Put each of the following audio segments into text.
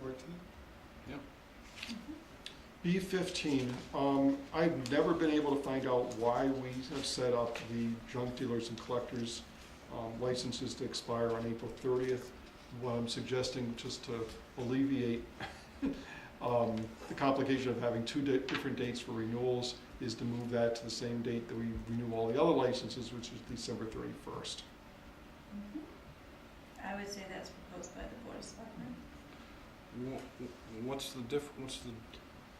fourteen? Yep. B fifteen, um, I've never been able to find out why we have set up the junk dealers and collectors um, licenses to expire on April thirtieth. What I'm suggesting, just to alleviate um, the complication of having two di- different dates for renewals, is to move that to the same date that we renew all the other licenses, which is December thirty-first. Mm-hmm. I would say that's proposed by the Board of Selectmen. Wha- wha- What's the diff, what's the,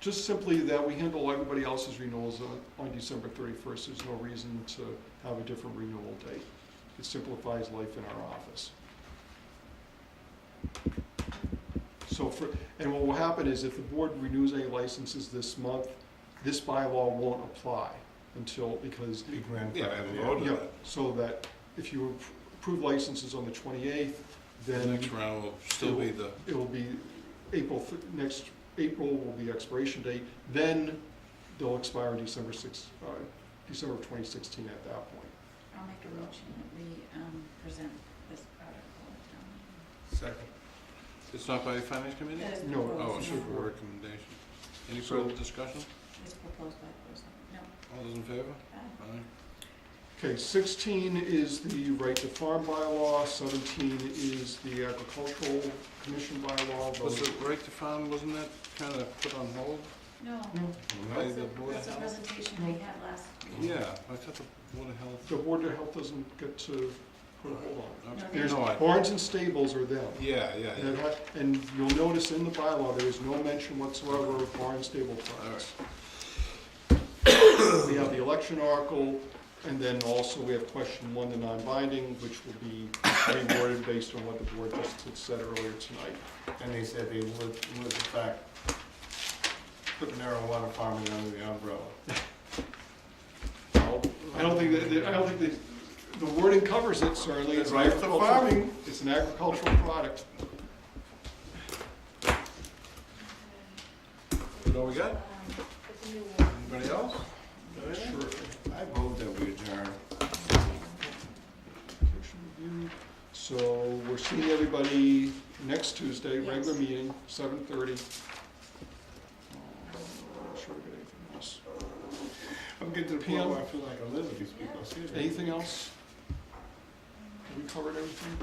Just simply that we handle everybody else's renewals on- on December 31st. There's no reason to have a different renewal date. It simplifies life in our office. So for, and what will happen is if the board renews any licenses this month, this bylaw won't apply until, because Be yeah, I grandfathered, haven't yeah. voted yeah, that. so that if you appro- approve licenses on the 28th, The then next round will still be the, it will be April, th- next April will be expiration date, then they'll expire December six, uh, December of twenty sixteen at that point. I'll make a motion that we um, present this article at town meeting. Second. it's not by the finance committee? That is No, Oh, it's proposed, just no, for recommendation. Any So- further discussion? it's proposed by the Board of Selectmen, no. All those in favor? uh, Aye. Okay, sixteen is the right to farm bylaw, seventeen is the agricultural commission bylaw. Was those- it right to farm, wasn't that kind of put on hold No, No, by that's the a, Board of that's a Health? presentation we had last week. Yeah, I thought the Board of Health. The Board of Health doesn't get to put a hold on. it. Okay. No, they- There's No, I- barns and stables are them. Yeah, yeah, yeah. And I- And you'll notice in the bylaw, there is no mention whatsoever of barn and stable All products. right. We have the election article, and then also we have question one, the non-binding, which will be reworded based on what the board just had said earlier tonight. And they said they would, would in fact put marijuana farming under the umbrella. Now, I don't think that, that- I don't think that, the wording covers it certainly. It's an Right to agricultural- farming. It's an agricultural product. Is that all we got? Um, it's a new one. Anybody else? Sure. I vote that we adjourn. Commission review. So we're seeing everybody next Tuesday, Yes. regular meeting, seven thirty. Sure we got anything else. I'm getting to the point where I feel like I live with these people, seriously. Anything else? Have we covered everything?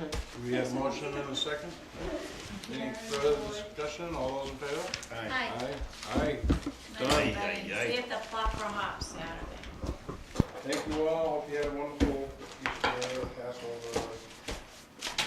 Okay. We have a motion and a second. Any further discussion? All those in favor? Aye. Hi. Aye. Aye. Nice, buddy. See if the flop for hops Saturday. Thank you all. Hope you had a wonderful Easter, Passover.